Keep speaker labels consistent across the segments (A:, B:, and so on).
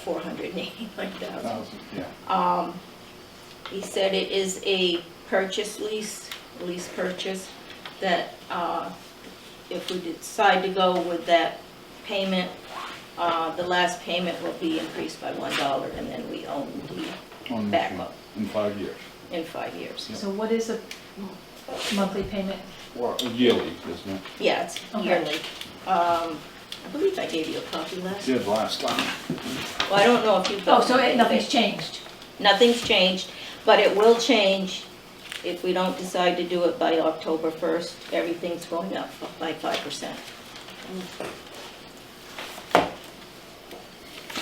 A: four hundred and eighty-nine thousand.
B: Thousand, yeah.
A: Um, he said it is a purchase lease, lease purchase, that, uh, if we decide to go with that payment, uh, the last payment will be increased by one dollar, and then we own the,
B: on this
A: Back
B: one,
A: up.
B: In five years,
A: in five years.
C: So what is a monthly payment?
B: or yearly, isn't it?
A: Yeah, it's
C: Okay.
A: yearly. Um, I believe I gave you a copy last,
B: Did last time.
A: well, I don't know if you've.
C: Oh,
A: got
C: so it- nothing's
A: anything.
C: changed?
A: Nothing's changed, but it will change if we don't decide to do it by October 1st. Everything's going up by 5%.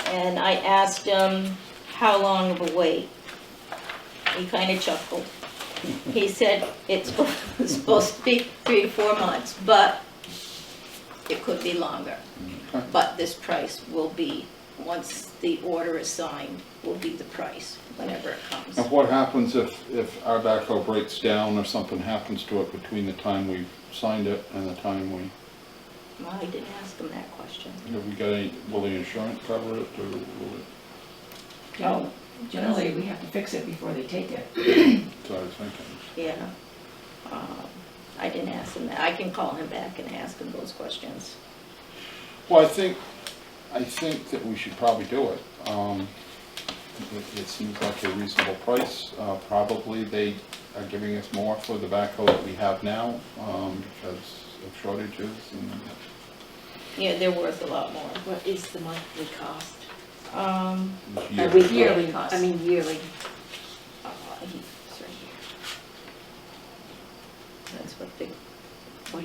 A: And I asked him, how long of a wait? He kind of chuckled. He said, it's supposed to be three to four months, but it could be longer. But this price will be, once the order is signed, will be the price whenever it comes.
B: And what happens if, if our backhoe breaks down or something happens to it between the time we signed it and the time we,
A: Well, I didn't ask him that question.
B: have we got any, will the insurance cover it or will it,
A: Oh.
D: Generally, we have to fix it before they take it.
B: so I was thinking.
A: Yeah. Um, I didn't ask him that. I can call him back and ask him those questions.
B: Well, I think, I think that we should probably do it. Um, It, it seems like a reasonable price. Uh, Probably they are giving us more for the backhoe that we have now um, because of shortages and
A: Yeah, they're worth a lot more.
E: What is the monthly cost?
A: Um,
E: Or
B: years.
E: with yearly cost? I mean yearly.
A: uh, he- it's right here. That's what the,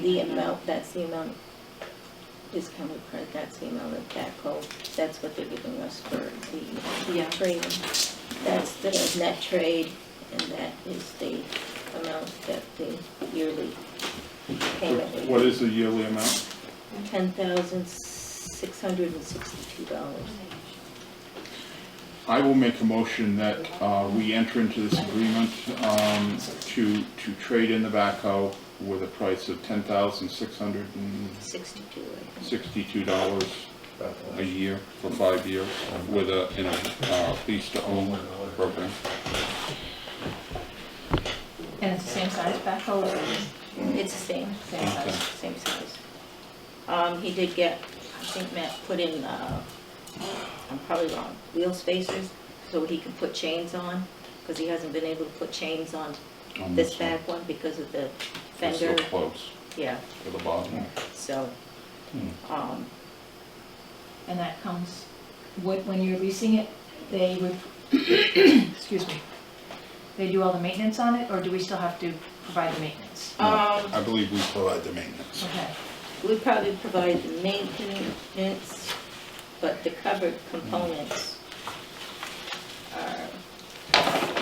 A: the amount, that's the amount, discounted price, that's the amount of backhoe. That's what they're giving us for the
E: Yeah.
A: trade. That's the net trade, and that is the amount that the yearly payment is.
B: What is the yearly amount?
A: ten thousand six hundred and sixty-two dollars.
B: I will make a motion that uh, we enter into this agreement um, to, to trade in the backhoe with a price of ten thousand six hundred and
A: Sixty-two, I think.
B: sixty-two dollars a year for five years with a, in a, uh, lease to own program.
C: And it's the same size backhoe, or is
A: It's the same,
C: it same
B: Okay.
C: size?
A: same size. Um, he did get, I think Matt put in, uh, I'm probably wrong, wheel spacers, so he could put chains on, because he hasn't been able to put chains on
B: on
A: this
B: one.
A: back one because of the
B: It's so
A: fender,
B: Um, close
A: yeah,
B: to the bottom.
A: so, um,
C: And that comes, what, when you're leasing it, they would, excuse me, they do all the maintenance on it, or do we still have to provide the maintenance?
B: No,
A: Um,
B: I believe we provide the maintenance.
C: Okay,
A: we probably provide the maintenance, but the covered components are.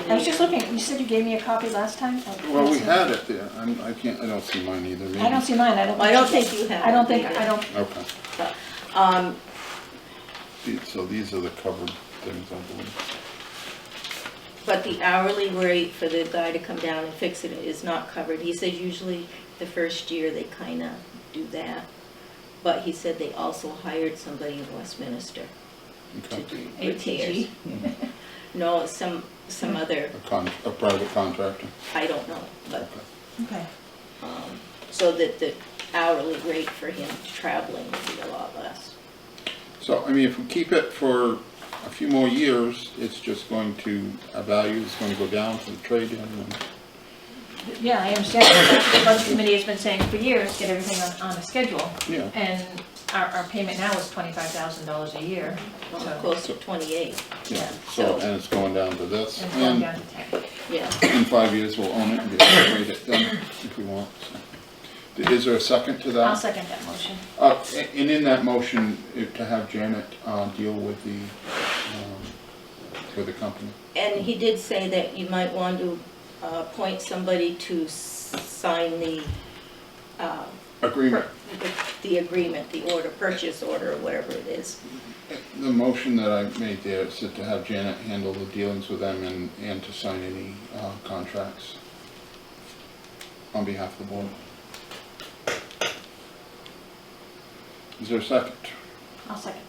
C: I was just looking, you said you gave me a copy last time? I don't
B: Well, we
C: see-
B: had it there, I'm, I can't, I don't see mine either, maybe.
C: I don't see mine, I don't.
A: I don't think you have.
C: I don't
A: it
C: think, I
A: either.
C: don't,
B: Okay,
A: Um,
B: The- so these are the covered things, I believe.
A: but the hourly rate for the guy to come down and fix it is not covered. He said usually the first year they kinda do that. But he said they also hired somebody in Westminster to
B: Okay.
A: do repairs.
C: ATG,
A: No, some, some other,
B: A con, a private contractor.
A: I don't know, but,
B: Okay.
C: okay.
A: um, so that the hourly rate for him traveling would be a lot less.
B: So, I mean, if we keep it for a few more years, it's just going to, our value is going to go down for the trade-in and.
C: Yeah, I understand, That's what the budget committee has been saying for years, get everything on, on a schedule.
B: Yeah.
C: And our, our payment now is twenty-five thousand dollars a year,
A: Well,
C: so,
A: close to twenty-eight,
B: Yeah,
C: Yeah.
B: so, and it's going down to this,
C: and it's going
B: and
C: down to ten.
A: yeah.
B: in five years, we'll own it and be able to trade it then, if we want. so. Is there a second to that?
C: I'll second that motion.
B: Uh, a- and in that motion, if, to have Janet, uh, deal with the, um, with the company.
A: And he did say that you might want to uh, appoint somebody to s- sign the, uh,
B: Agreement.
A: the- the agreement, the order, purchase order, or whatever it is.
B: The motion that I made there said to have Janet handle the dealings with them and, and to sign any, uh, contracts on behalf of the board. Is there a second?
C: I'll second.